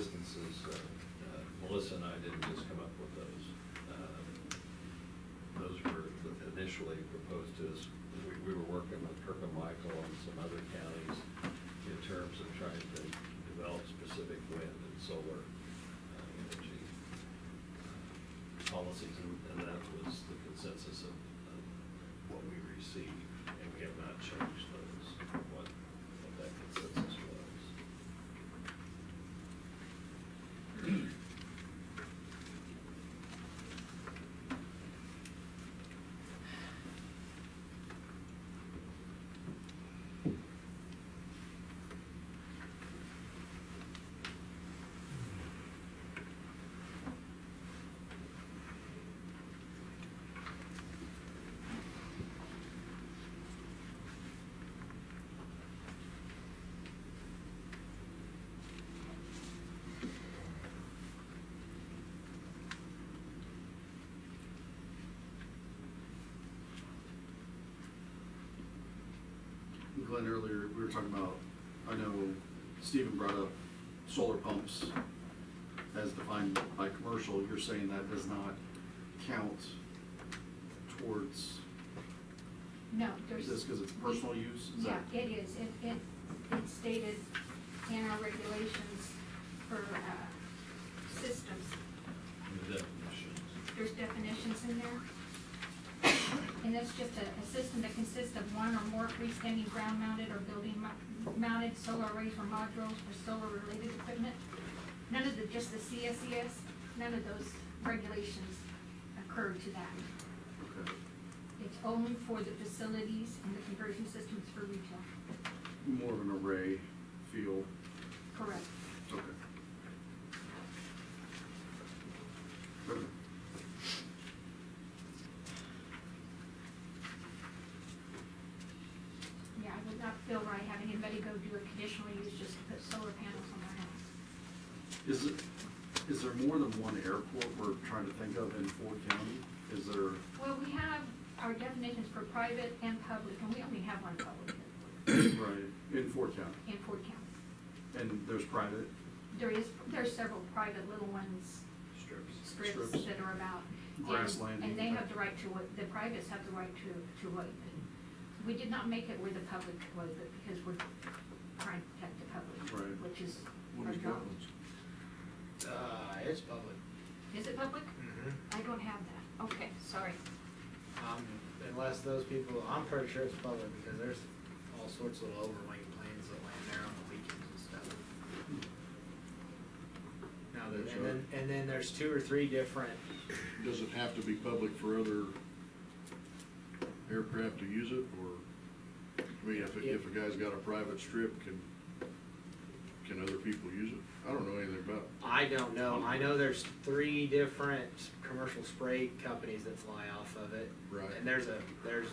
so uh, Melissa and I didn't just come up with those. Um, Those were initially proposed to us, we, we were working with Kirkham Michael and some other counties in terms of trying to develop specific wind and solar uh, energy uh, policies, and and that was the consensus of of what we received, and we have not changed those, what, what that consensus was. Glenn, earlier, we were talking about, I know Stephen brought up solar pumps as defined by commercial, you're saying that does not count towards No, there's. this because it's personal use? Is Yeah, that- it is. It, it, it's stated in our regulations for, uh, systems. The definitions. There's definitions in there. And that's just a, a system that consists of one or more freestanding ground mounted or building mo- mounted solar arrays or modules for solar related equipment. None of the, just the CSES, none of those regulations occur to that. Okay. It's only for the facilities and the conversion systems for retail. More of an array feel, Correct. okay. Okay. Yeah, I would not feel right having anybody go do a conditional use just to put solar panels on their house. Is it, is there more than one airport we're trying to think of in Ford County? Is there, Well, we have our definitions for private and public, and we only have one public right, in Ford County? in Ford County. And there's private? There is, there are several private little ones, Strips. strips Strips. that are about. and- Grassland, And they you have think? the right to, wa- the privates have the right to, to waive it. We did not make it where the public was, but because we're trying to protect the Right. public, which is What our is job. Gotland's? Uh, it's public. Is it public? I don't have that. Okay, sorry. Um, unless those people, I'm pretty sure it's public because there's all sorts of overweight planes that land there on the weekends and stuff. Now, there- and then, and then there's two or three different, Does it have to be public for other aircraft to use it, or, I mean, if, if a guy's got a private strip, can, can other people use it? I don't know anything about, I don't know, I know there's three different commercial spray companies that fly off of it. Right. And there's a, there's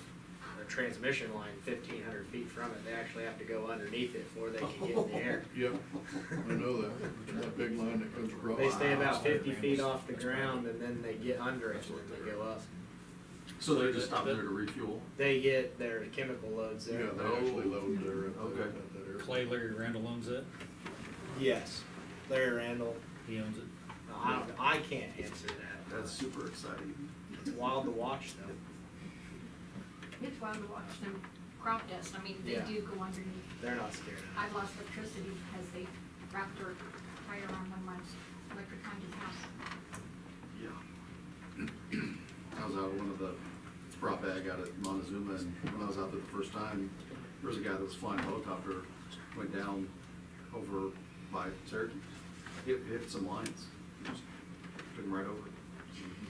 a transmission line fifteen hundred feet from it, they actually have to go underneath it before they can get in the air. yep, I know that, It's that big line that comes across. They stay about fifty feet off the ground and then they get under it and then they go up. So they just stop there to refuel? They get their chemical loads Yeah, there. they actually load there at Okay. that, at that airport. Clay Larry Randall owns it, Yes, Larry Randall. he owns it. I, I can't answer that. That's super exciting. It's wild to watch though. It's wild to watch them crop dust. I mean, they Yeah. do go underneath. They're not scared of I've lost electricity because they wrapped their tire around one of my electric conduit house. Yeah. I was out at one of the prop bag out at Montezuma, and when I was out there the first time, there was a guy that was flying a helicopter, went down over by Syracuse, hit, hit some lines, just took him right over.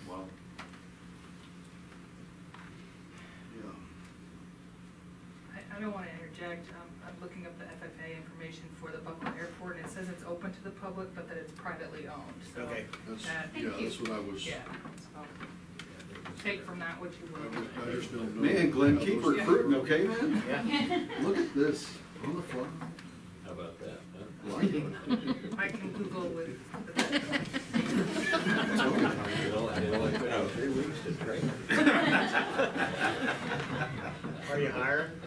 Wow. Yeah. I, I don't wanna interject, um, I'm looking up the FFA information for the Buckle Airport, and it says it's open to the public, but that it's privately owned, so. Okay. That's, that- yeah, that's what I was, Yeah, so, take from that what you I will. was- I just don't know. Man, Glenn, how keep those- recruiting, okay, man? that. Yeah. Look at this, on the fly. How about that, huh? Like it. I can Google with, Well, I mean, like, you know, three weeks to train. Are you hiring?